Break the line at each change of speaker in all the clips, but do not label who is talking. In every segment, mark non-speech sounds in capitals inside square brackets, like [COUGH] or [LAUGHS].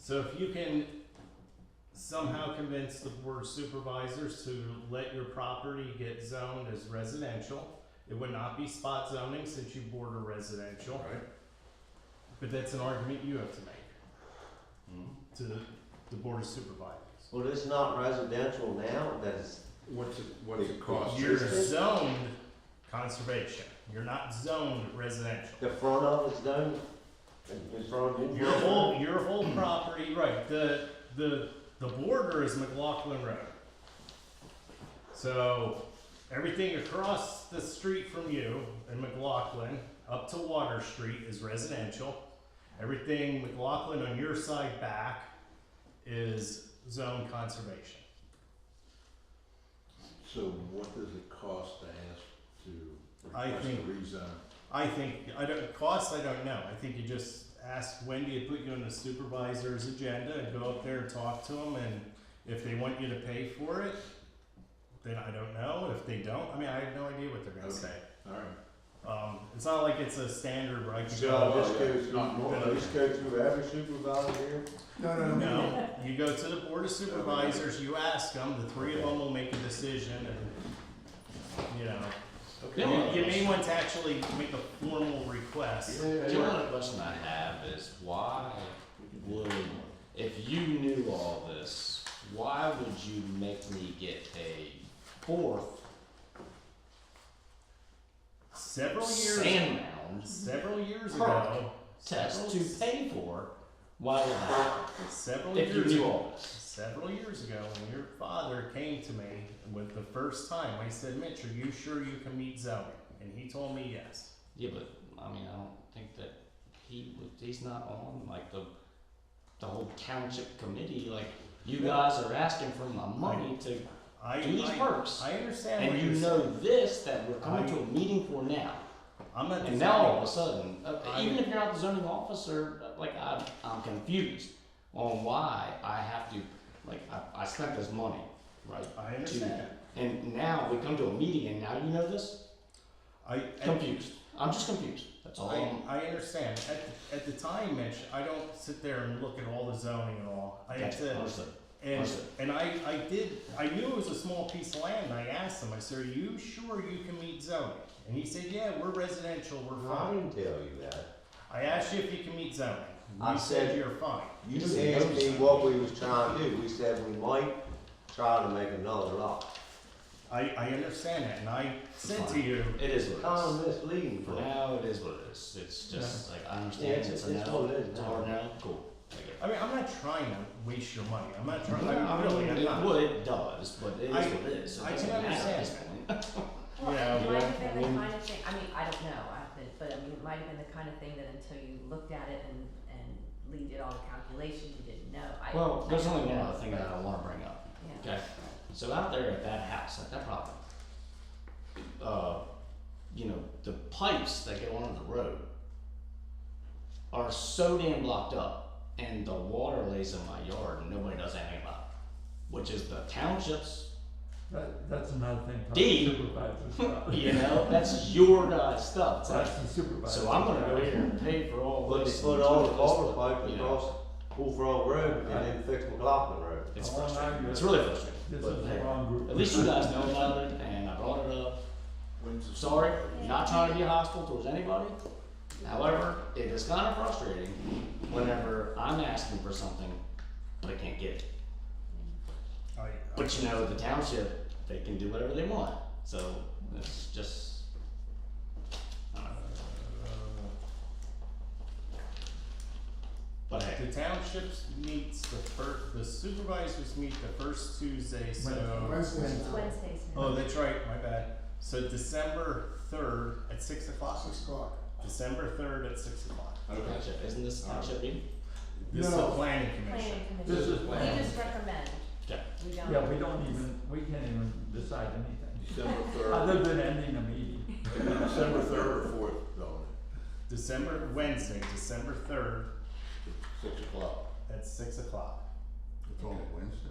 So if you can somehow convince the board of supervisors to let your property get zoned as residential, it would not be spot zoning since you border residential,
Right.
but that's an argument you have to make to the board of supervisors.
Well, it's not residential now, that's,
What's it, what's it cost?
You're zoned conservation, you're not zoned residential.
the front of it's done, in front of you.
Your whole, your whole [CLEARS THROAT] property, right, the, the, the border is McLaughlin Road. So, everything across the street from you in McLaughlin, up to Water Street is residential. Everything McLaughlin on your side back is zone conservation.
So what does it cost to ask to
I
request
think-
a rezon?
I think, I don't, cost, I don't know, I think you just ask Wendy to put you on the supervisor's agenda and go up there and talk to them, and if they want you to pay for it, then I don't know, if they don't, I mean, I have no idea what they're gonna say.
Alright.
Um, it's not like it's a standard where I can
So
go,
this goes,
uh, Not normal.
this goes through every supervisor here?
no, you go to the board of supervisors, you ask them, the three of them will make a decision, and, you know. You- You may want to actually make a formal request.
The only question I have is why would, if you knew all this, why would you make me get a fourth
Several years
sand mound
Several years
Correct.
ago,
test to
several-
pay for? Why would I,
several
if you
years
knew
ago,
all this?
several years ago, when your father came to me with the first time, I said, "Mitch, are you sure you can meet zoning?" And he told me yes.
Yeah, but I mean, I don't think that he would, he's not on like the, the whole township committee, like you guys are asking for my money to
I
do these
I,
works.
I understand.
And
what
you
you're
know this, that we're coming
I-
to a meeting for now.
saying. I'm not.
And now all of a
defending-
sudden, uh,
I-
even if you're not the zoning officer, uh, like I'm, I'm confused on why I have to, like I, I spent this money, right?
I
to-
understand.
And now we come to a meeting and now you know this?
I and
Confused. Um, I'm just confused. That's all
I,
I'm.
I understand. At the, at the time, Mitch, I don't sit there and look at all the zoning and all. I have
Gotcha.
to
Understood.
And,
Understood.
and I, I did, I knew it was a small piece of land, and I asked him, I said, are you sure you can meet zoning? And he said, yeah, we're residential, we're
I
fine.
didn't tell you that.
I asked you if you can meet zoning,
I
you said
said-
you're fine.
You
Just
asked me
notice.
what we was trying to do, we said we might try to make another lot.
I, I understand that, and I said to
Fine.
you,
It is what it
Kind of misleading
is. For
for me.
now, it is what it is. It's just like I understand.
Yeah, it's-
a
it's
no.
what it is
It's a
now.
hard no. Cool. I get it.
I mean, I'm not trying to waste your money, I'm not trying, I
I
really,
mean,
I'm
it
not.
would, it does, but it is
I-
what it is. It
I can
doesn't matter at this
understand.
point.
Well,
Yeah,
it might have
yeah, I
been the
mean-
kind of thing, I mean, I don't know, I haven't, but I mean, it might have been the kind of thing that until you looked at it and, and Lee did all the calculations, you didn't know. I-
Well,
I
there's
don't
only one
know,
other thing
but-
that I wanna bring up,
Yeah,
okay? So out there at that house, at that property, uh, you know, the pipes that go onto the road are so damn blocked up and the water lays in my yard and nobody does anything about it, which is the township's,
That, that's another thing. probably
D.
Supervisor's
[LAUGHS]
[LAUGHS]
problem.
you know, that's your guys' stuff. It's
That's
like,
the supervisor.
So I'm gonna go here and pay for all
But they
this.
put
and
all the
do this,
water
but,
pipe
you know,
across Bull Frog Road and then fix McLaughlin Road.
It's
I wanna
frustrating,
argue
it's
that
really frustrating,
This
but
is the
hey,
wrong group.
at least you guys know about it and I brought it up.
When's the-
Sorry, not trying to be hostile towards anybody. However, it is kind of frustrating whenever I'm asking for something, but I can't get it.
I-
But you know, the township, they can do whatever they want, so it's just. I
uh,
don't know. But hey,
The townships meets the fir, the supervisors meet the first Tuesday, so.
it's Wednesdays now.
Oh, that's right, my bad. So December third at six o'clock. Six o'clock. December third at six o'clock.
Okay.
township, isn't this township meeting?
This is the planning commission.
Planning
This
commission,
is
we
planned,
just recommend,
Yeah.
we
Yeah,
don't,
we don't even, we can't even decide anything,
December third,
other than ending a meeting.
December third or fourth, though,
December, Wednesday, December third
six o'clock.
at six o'clock.
It's on Wednesday?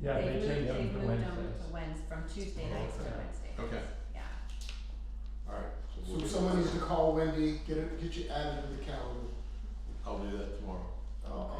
Yeah,
they
they
moved,
changed
they
them to
moved them
Wednesdays.
to Wednes, from Tuesday nights to
Okay.
Wednesday.
Okay.
Yeah,
Alright.
So if someone needs to call Wendy, get it, get you added to the calendar.
I'll do that tomorrow.